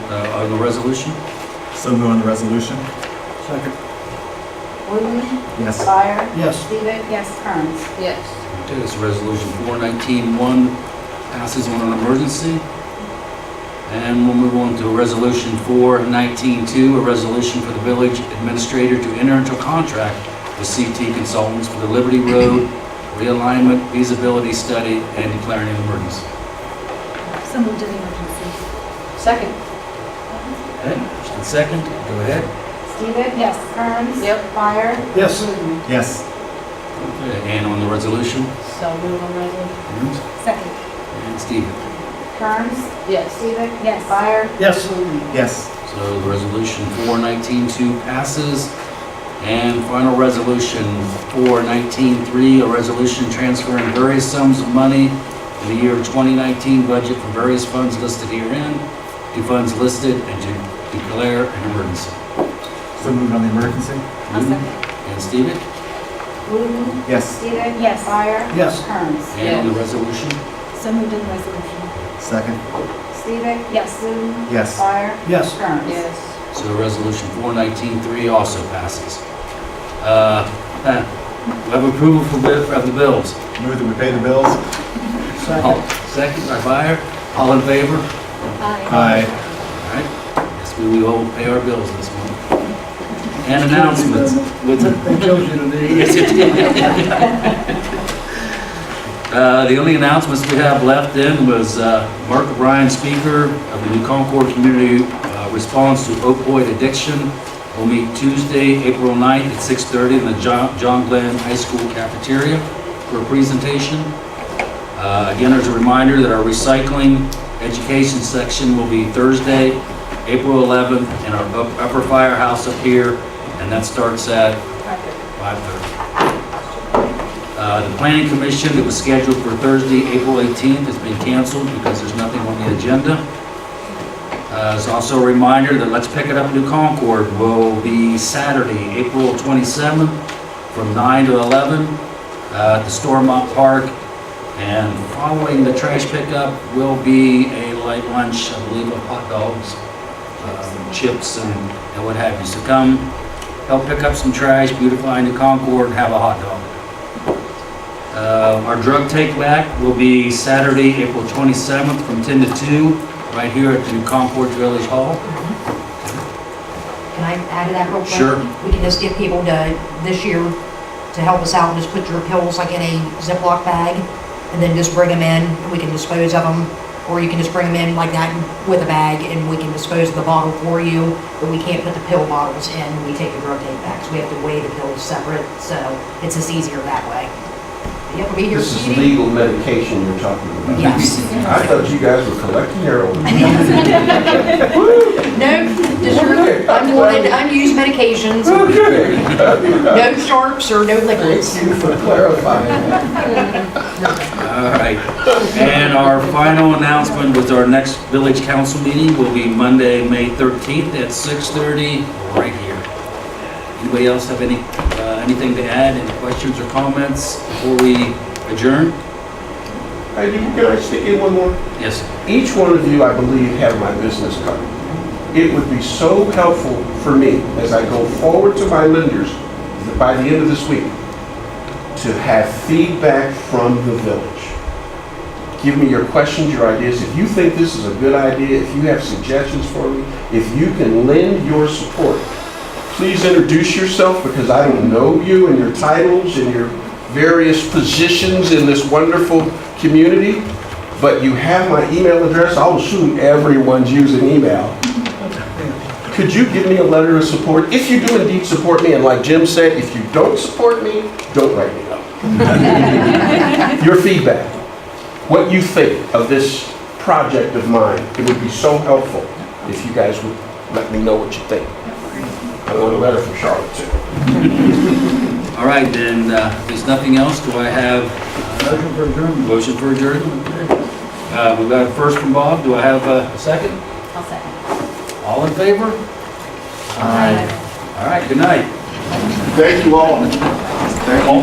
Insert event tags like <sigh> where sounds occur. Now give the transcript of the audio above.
Uh, the resolution? So move on the resolution? Second. Wooten, Yes. Fire, Yes. Stevic, yes, Kearns. yes, Okay, this is resolution four nineteen one passes on an emergency. And we'll move on to resolution four nineteen two, a resolution for the village administrator to enter into a contract with CT Consultants for the Liberty Road realignment feasibility study and declaring an emergency. So moved as emergency. second, Okay, first and second, go ahead. Stevic? Yes. Kearns? Yep. Fire? Yes. Wooten? Yes. Okay, And on the resolution, so move on resolution, Mm-hmm. Second. and Stephen. Kearns? yes, Stevic? Yes. Fire? Yes. Wooten? Yes. So the resolution 4192 passes. And final resolution 4193, a resolution transferring various sums of money in the year 2019 budget from various funds listed herein to funds listed and to declare an emergency. So move on the emergency? I'll second. And Steven? Wooten? Yes. Stevic? Yes. Fire? Yes. Kearns? And on the resolution? So moved as resolution. Second? Stevic? Yes. Wooten? Yes. Fire? Yes. Kearns? yes, So resolution 4193 also passes. Uh, huh, We have approval for bi- of the bills. Move that we pay the bills? Second. Second by Fire. All in favor? Aye. All right, guess we will pay our bills this month. And announcements. They killed you today. <laughs> Yes, it did. Uh, The only announcements we have left then was uh, Mark O'Brien, Speaker of the New Concord Community uh, Response to Opioid Addiction, will meet Tuesday, April 9th at 6:30 in the Jo- John Glenn High School cafeteria for a presentation. Uh, Again, as a reminder that our recycling education section will be Thursday, April 11th, in our up- upper firehouse up here, and that starts at 5:30. Uh, The planning commission that was scheduled for Thursday, April 18th, has been canceled because there's nothing on the agenda. Uh, It's also a reminder that Let's Pick It Up New Concord will be Saturday, April 27th, from 9 to 11 uh, at the Stormont Park. And following the trash pickup will be a light lunch, I believe, of hot dogs, um, chips, and and what have you. So come, help pick up some trash, beautify New Concord, and have a hot dog. Uh, Our drug take back will be Saturday, April 27th from 10 to 2, right here at the New Concord Village Hall. Can I add to that real quick? Sure. We can just get people to, this year, to help us out, just put your pills like in a Ziploc bag, and then just bring them in, and we can dispose of them, or you can just bring them in like that with a bag, and we can dispose of the bottle for you, but we can't put the pill bottles in, we take the drug take bags, we have to weigh the pills separate, so it's just easier that way. You have to be here, This is Stevie? legal medication you're talking about. Yes. I thought you guys were collecting your own. No, just your Okay. unwanted, unused medications, Okay, no sharps or no liquids. thank you for clarifying that. All right. And our final announcement was our next village council meeting will be Monday, May 13th at 6:30, right here. Anybody else have any, uh, anything to add, any questions or comments before we adjourn? Hey, you- Can I stick in one more? Yes, Each one of you, I believe, have my business card. It would be so helpful for me as I go forward to my lenders by the end of this week to have feedback from the village. Give me your questions, your ideas. If you think this is a good idea, if you have suggestions for me, if you can lend your support, please introduce yourself because I don't know you and your titles and your various positions in this wonderful community but you have my email address. I'll assume everyone's using email. Could you give me a letter of support? If you do indeed support me, and like Jim said, if you don't support me, don't write me up. Your feedback, what you think of this project of mine, it would be so helpful if you guys would let me know what you think. I want a letter from Charlotte too. all right, then, uh, if there's nothing else, do I have uh, Motion for adjournment. Motion for adjournment. Uh, We've got a first from Bob. Do I have a second? I'll second. All in favor? Aye. All right, good night. Thank you all. Thank you.